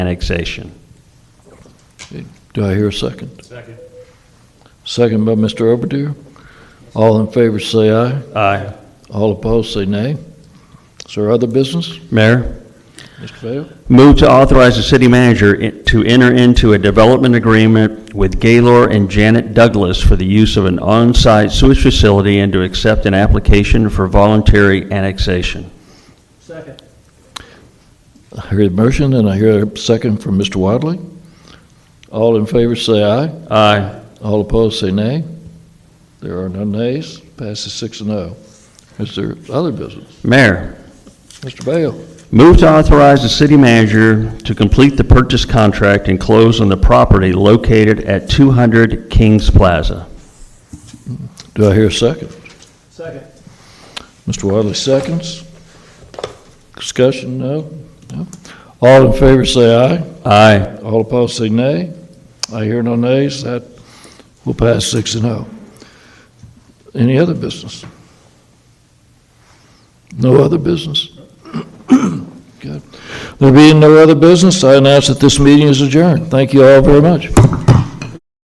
annexation. Do I hear a second? Second. Second by Mr. Oberdear. All in favor say aye. Aye. All opposed say nay. Is there other business, Mayor, Mr. Vale? move to authorize the city manager i- to enter into a development agreement with Gaylor and Janet Douglas for the use of an on-site sewage facility and to accept an application for voluntary annexation. I hear the motion and I hear a second from Mr. Wadley. All in favor say aye. Aye. All opposed say nay. There are no nays. Passes six and oh. Is there other business? Mayor, Mr. Vale? Move to authorize the city manager to complete the purchase contract and close on the property located at 200 Kings Plaza. Do I hear a second? Second. Mr. Wadley seconds. Discussion, no? No? All in favor say aye. Aye. All opposed say nay. I hear no nays. That will pass six and oh. Any other business? No other business? Good. There being no other business, I announce that this meeting is adjourned. Thank you all very much.